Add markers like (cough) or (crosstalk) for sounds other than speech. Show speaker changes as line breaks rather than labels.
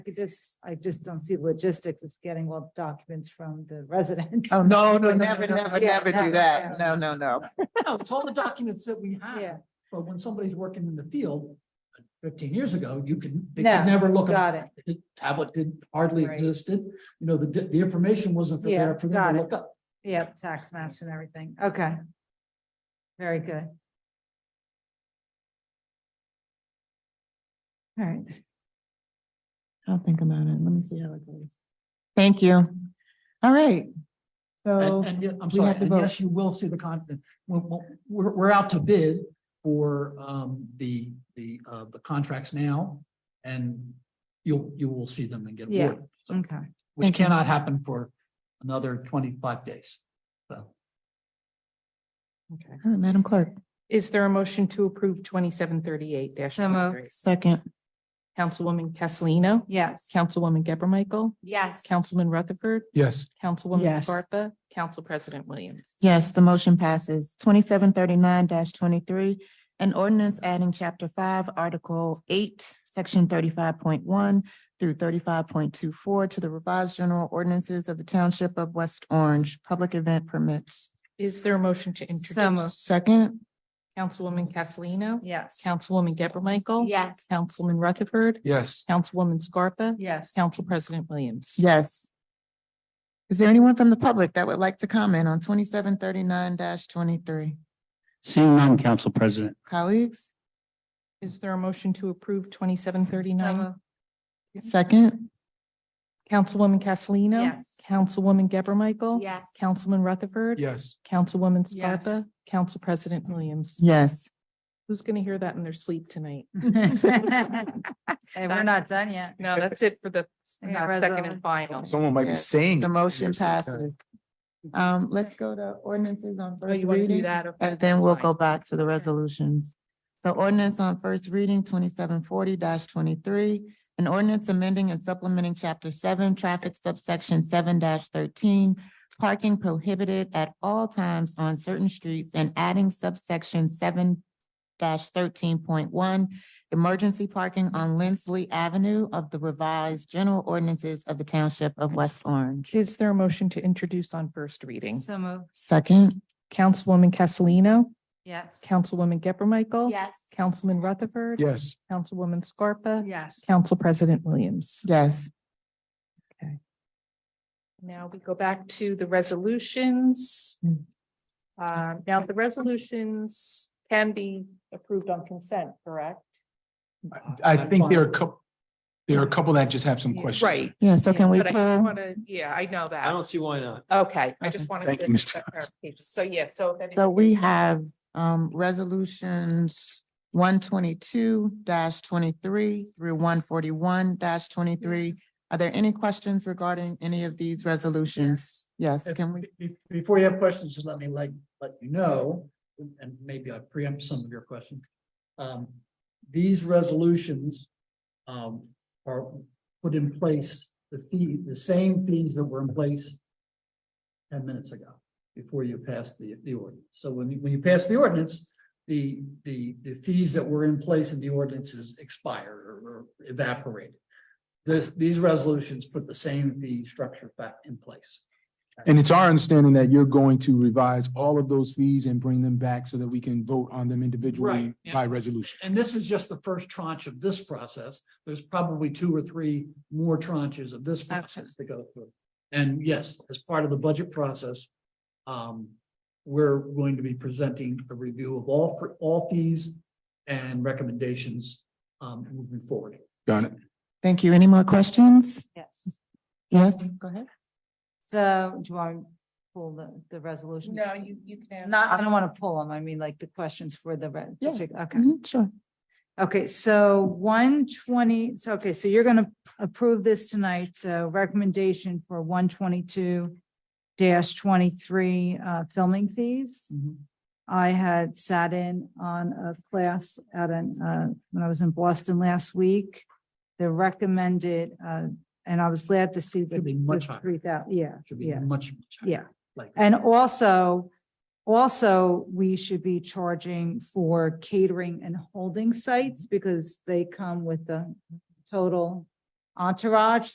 could just, I just don't see logistics of getting all documents from the (laughs) residents.
Oh, no, no, no,
Would
no,
never,
no,
never,
yeah,
never
no,
do that.
no,
No, no, no.
No, it's all the documents that we
Yeah.
have, but when somebody's working in the field fifteen years ago, you could, they
No,
could never look. them
Got it.
up. The Tablet did hardly
Right.
existed, you know, the, the information wasn't for
Yeah,
there for
got
them
it.
to look up.
Yep, tax maps and everything. Okay. Very good. All right.
I'll think about it. Let me see how it goes. Thank you. All right. So
And, and, yeah, I'm
we
sorry,
have to
and
vote.
yes, you will see the content, we're, we're- we're, we're out to bid for, um, the, the, uh, the contracts now. And you'll, you will see them and get
Yeah. Mm,
awarded, so,
Okay.
which
Thank you.
cannot happen for another twenty-five days. So,
Okay.
all right, uh, Madam Clerk,
Is there a motion to approve twenty-seven thirty-eight dash?
So moved.
second,
Councilwoman Castellino,
Yes.
Councilwoman Geber Michael,
Yes.
Councilman Rutherford,
yes,
Councilwoman
Yes.
Scarpa, Council President Williams.
yes, the motion passes. Twenty-seven thirty-nine twenty-three, an ordinance adding chapter five, article eight, section thirty-five point one through thirty-five point two four to the revised general ordinances of the township of West Orange, public event permits.
Is there a motion to introduce?
moved.
Second,
Councilwoman Castellino,
Yes.
Councilwoman Geber Michael.
Yes.
Councilman Rutherford,
yes.
Councilwoman Scarpa,
Yes.
Council President Williams.
Yes. Is there anyone from the public that would like to comment on twenty-seven thirty-nine twenty-three?
Seeing none, Council President.
Colleagues,
Is there a motion to approve twenty-seven thirty-nine?
second?
Councilwoman Castellino.
Yes.
Councilwoman Geber Michael.
Yes.
Councilman Rutherford.
Yes.
Councilwoman
Yes.
Scarpa, Council President Williams.
Yes.
Who's gonna hear that in their sleep tonight?
(laughs) Hey, we're not done yet.
No, that's it for the
Yeah,
uh, second
Reza.
and final.
Someone might
Yeah.
be saying.
The
it.
motion
Here's the-
passes. Um, let's go to ordinances on
Oh,
first
you wanna do
reading.
that? Okay,
And Uh, then we'll
fine.
go back to the resolutions. So ordinance on first reading, twenty-seven forty twenty-three, an ordinance amending and supplementing chapter seven, traffic subsection seven thirteen, parking prohibited at all times on certain streets and adding subsection seven thirteen point one, emergency parking on Lindsley Avenue of the revised general ordinances of the township of West Orange.
Is there a motion to introduce on first reading?
So moved.
Second,
Councilwoman Castellino,
Yes.
Councilwoman Geber Michael.
Yes.
Councilman Rutherford.
Yes.
Councilwoman Scarpa.
Yes.
Council President Williams.
yes.
Now we go back to the resolutions.
Mm.
Uh, now the resolutions can be approved on consent, correct?
I think there are a couple, there are a couple that just have some questions.
Right.
Yeah, so can we
But I
pull?
want to, yeah, I know that.
I don't see why not.
Okay, I
Okay.
just wanted.
Thank
to
you, Mr.
get that
Thomas.
clarification. So, yeah, so. if any-
So we have um resolutions one twenty-two twenty-three through one forty-one twenty-three. Are there any questions regarding any of these resolutions? Yes, can we?
Be- Before you have questions, just let me like, let you know, and maybe I preempt some of your questions. Um, these resolutions um, are put in place, the fee, the same fees that were in place ten minutes ago, before you passed the, the ordinance. So when you, when you pass the ordinance, the, the, the fees that were in place in the ordinances expire or evaporate. This, these resolutions put the same fee structure back in place.
And it's our understanding that you're going to revise all of those fees and bring them back so that we can vote on them individually
Right, yeah.
by resolution.
And this is just the first tranche of this process. There's probably two or three more tranches of this process to go through. And yes, as part of the budget process, um, we're going to be presenting a review of all, for all fees and recommendations, um, moving forward.
Got it?
Thank you. Any more questions?
Yes.
Yes, go ahead.
So do you want to pull the, the resolutions?
No, you, you can.
Not, I don't want to pull them. I mean, like the questions for the, re-
Yes.
okay.
Mm-hmm.
Mhm, Sure.
Okay, so one twenty, so, okay, so you're gonna approve this tonight, so recommendation for one twenty-two dash twenty-three, uh, filming fees. I had sat in on a class at an, uh, when I was in Boston last week. The recommended, uh, and I was glad to see.
Should be much higher.
Three thousand, yeah,
Should be
yeah,
much. much higher,
yeah.
Like.
And also, also, we should be charging for catering and holding sites because they come with the total Entourage,